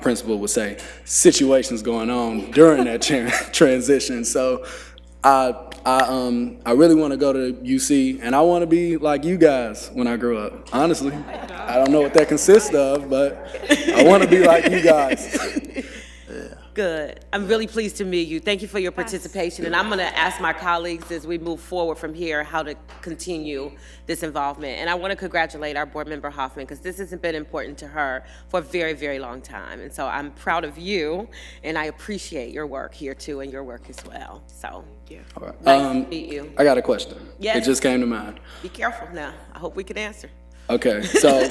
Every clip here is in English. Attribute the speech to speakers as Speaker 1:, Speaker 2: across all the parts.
Speaker 1: principal would say, situations going on during that tran- transition. So I, I, um, I really want to go to UC, and I want to be like you guys when I grow up. Honestly, I don't know what that consists of, but I want to be like you guys.
Speaker 2: Good. I'm really pleased to meet you. Thank you for your participation, and I'm going to ask my colleagues as we move forward from here how to continue this involvement. And I want to congratulate our board member Hoffman, because this has been important to her for a very, very long time. And so I'm proud of you, and I appreciate your work here too, and your work as well. So, nice
Speaker 1: Um,
Speaker 2: to meet you.
Speaker 1: I got a question. It
Speaker 2: Yes.
Speaker 1: just came to mind.
Speaker 2: Be careful now. I hope we can answer.
Speaker 1: Okay, so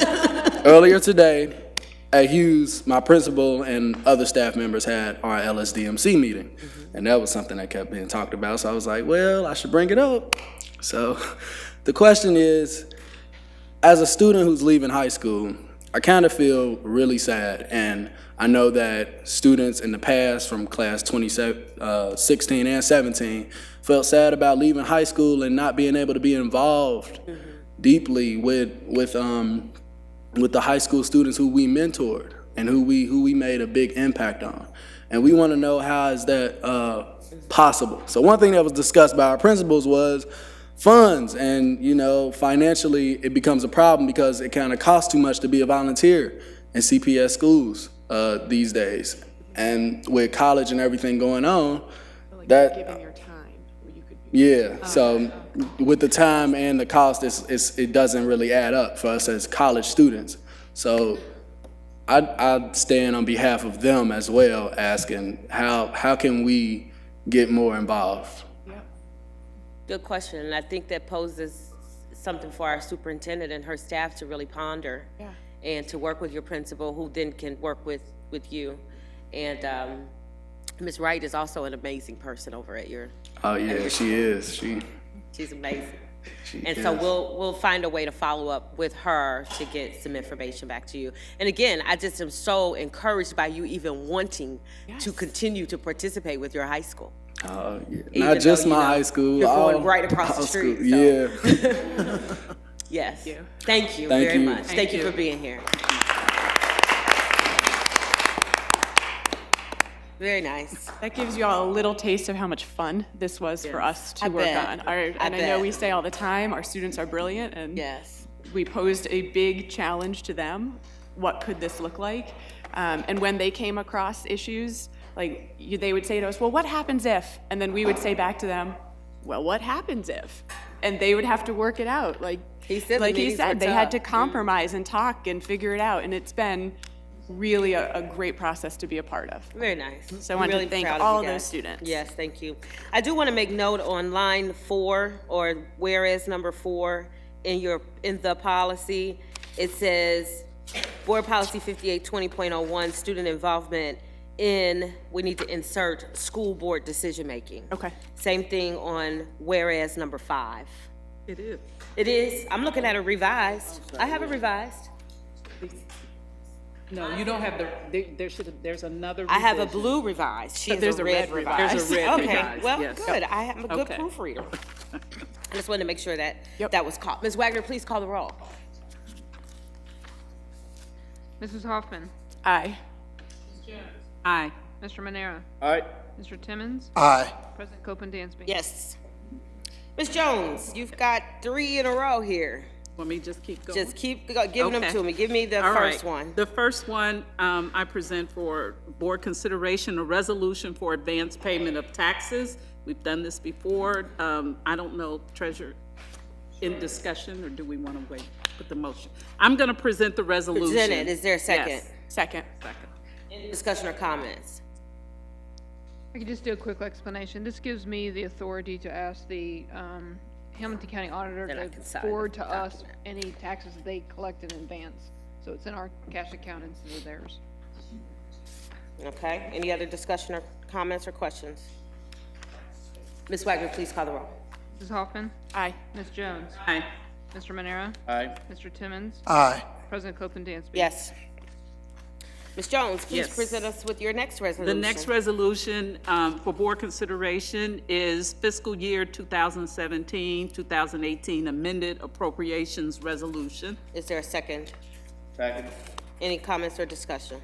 Speaker 1: earlier today at Hughes, my principal and other staff members had our LSDMC meeting. And that was something that kept being talked about, so I was like, well, I should bring it up. So the question is, as a student who's leaving high school, I kind of feel really sad. And I know that students in the past from class 27, uh, 16 and 17 felt sad about leaving high school and not being able to be involved deeply with, with, um, with the high school students who we mentored and who we, who we made a big impact on. And we want to know how is that uh, possible? So one thing that was discussed by our principals was funds and you know financially it becomes a problem because it kind of costs too much to be a volunteer in CPS schools uh, these days. And with college and everything going on, that
Speaker 3: giving your time, where you could be
Speaker 2: Oh,
Speaker 1: yeah, so with the time and the cost, it's, it's, it doesn't really add up for us as college students. So I, I stand on behalf of them as well, asking how, how can we get more involved?
Speaker 2: Good question, and I think that poses something for our superintendent and her staff to really ponder.
Speaker 3: Yeah.
Speaker 2: And to work with your principal, who then can work with, with you. And, um, Ms. Wright is also an amazing person over at your,
Speaker 1: Oh, yeah, she is, she,
Speaker 2: she's amazing.
Speaker 1: she
Speaker 2: And so
Speaker 1: is.
Speaker 2: we'll, we'll find a way to follow up with her to get some information back to you. And again, I just am so encouraged by you even wanting to continue to participate with your high school.
Speaker 1: Oh, yeah.
Speaker 2: though,
Speaker 1: Not just
Speaker 2: you
Speaker 1: my
Speaker 2: know,
Speaker 1: high school.
Speaker 2: you're going
Speaker 1: all-
Speaker 2: right across the
Speaker 1: all school-
Speaker 2: street, so.
Speaker 1: Yeah.
Speaker 2: Yes. Thank you
Speaker 1: Thank
Speaker 2: very
Speaker 1: you.
Speaker 2: much. Thank you for being here. Very nice.
Speaker 3: That gives you all a little taste of how much fun this was for us to
Speaker 2: I
Speaker 3: work
Speaker 2: bet.
Speaker 3: on. Our, and I,
Speaker 2: bet.
Speaker 3: know we say all the time, our students are brilliant, and
Speaker 2: Yes.
Speaker 3: we posed a big challenge to them. What could this look like? Um, and when they came across issues, like you, they would say to us, "Well, what happens if?" And then we would say back to them, "Well, what happens if?" And they would have to work it out. Like
Speaker 2: He said the
Speaker 3: like he
Speaker 2: meetings were
Speaker 3: said, they had to
Speaker 2: tough.
Speaker 3: compromise and talk and figure it out. And it's been really a, a great process to be a part of.
Speaker 2: Very nice.
Speaker 3: So I
Speaker 2: I'm
Speaker 3: wanted to
Speaker 2: really
Speaker 3: Mm-hmm. thank
Speaker 2: proud of
Speaker 3: all
Speaker 2: you
Speaker 3: those
Speaker 2: guys.
Speaker 3: students.
Speaker 2: Yes, thank you. I do want to make note on line four, or whereas number four in your, in the policy, it says, Board Policy 5820.01, Student Involvement in, we need to insert school board decision-making.
Speaker 3: Okay.
Speaker 2: Same thing on whereas number five.
Speaker 4: It is.
Speaker 2: It is, I'm looking at it revised. I have it revised.
Speaker 4: No, you don't have the, there- there should, there's another.
Speaker 2: I have a
Speaker 4: revision.
Speaker 2: blue revised. She has
Speaker 3: there's
Speaker 2: a
Speaker 3: a
Speaker 2: red
Speaker 3: red
Speaker 2: revised.
Speaker 4: There's a red
Speaker 2: Okay,
Speaker 4: revised,
Speaker 2: well,
Speaker 4: yes.
Speaker 2: good. I am a good
Speaker 4: Okay.
Speaker 2: proofreader. I just wanted to make sure that
Speaker 3: Yep.
Speaker 2: that was caught. Ms. Wagner, please call the roll.
Speaker 5: Mrs. Hoffman.
Speaker 3: Aye.
Speaker 4: Aye.
Speaker 5: Mr. Manera.
Speaker 1: All right.
Speaker 5: Mr. Timmons.
Speaker 6: Aye.
Speaker 5: President Copeland Dansby.
Speaker 2: Yes. Ms. Jones, you've got three in a row here.
Speaker 4: Let me to just keep going.
Speaker 2: Just keep go- giving them
Speaker 4: Okay.
Speaker 2: to me. Give me the
Speaker 4: All
Speaker 2: first
Speaker 4: right.
Speaker 2: one.
Speaker 4: The first one, um, I present for board consideration, a resolution for advance payment of taxes. We've done this before. Um, I don't know, treasurer, in discussion, or do we want to wait with the motion? I'm going to present the resolution.
Speaker 2: Present it. Is there a second?
Speaker 4: Yes.
Speaker 3: Second.
Speaker 4: Second.
Speaker 2: Discussion or comments?
Speaker 5: I could just do a quick explanation. This gives me the authority to ask the um, Hamilton County Auditor
Speaker 2: Then I
Speaker 5: to
Speaker 2: can sign
Speaker 5: forward
Speaker 2: the
Speaker 5: to us any taxes they collect in advance. So it's in our cash account instead of theirs.
Speaker 2: Okay. Any other discussion or comments or questions? Ms. Wagner, please call the roll.
Speaker 5: Mrs. Hoffman.
Speaker 3: Aye.
Speaker 5: Ms. Jones.
Speaker 4: Aye.
Speaker 5: Mr. Manera.
Speaker 1: Aye.
Speaker 5: Mr. Timmons.
Speaker 6: Aye.
Speaker 5: President Copeland Dansby.
Speaker 2: Yes. Ms. Jones, please
Speaker 4: Yes.
Speaker 2: present us with your next
Speaker 4: The
Speaker 2: resolution.
Speaker 4: next resolution um, for board consideration is fiscal year 2017, 2018 amended appropriations resolution.
Speaker 2: Is there a second?
Speaker 1: Second.
Speaker 2: Any comments or discussion?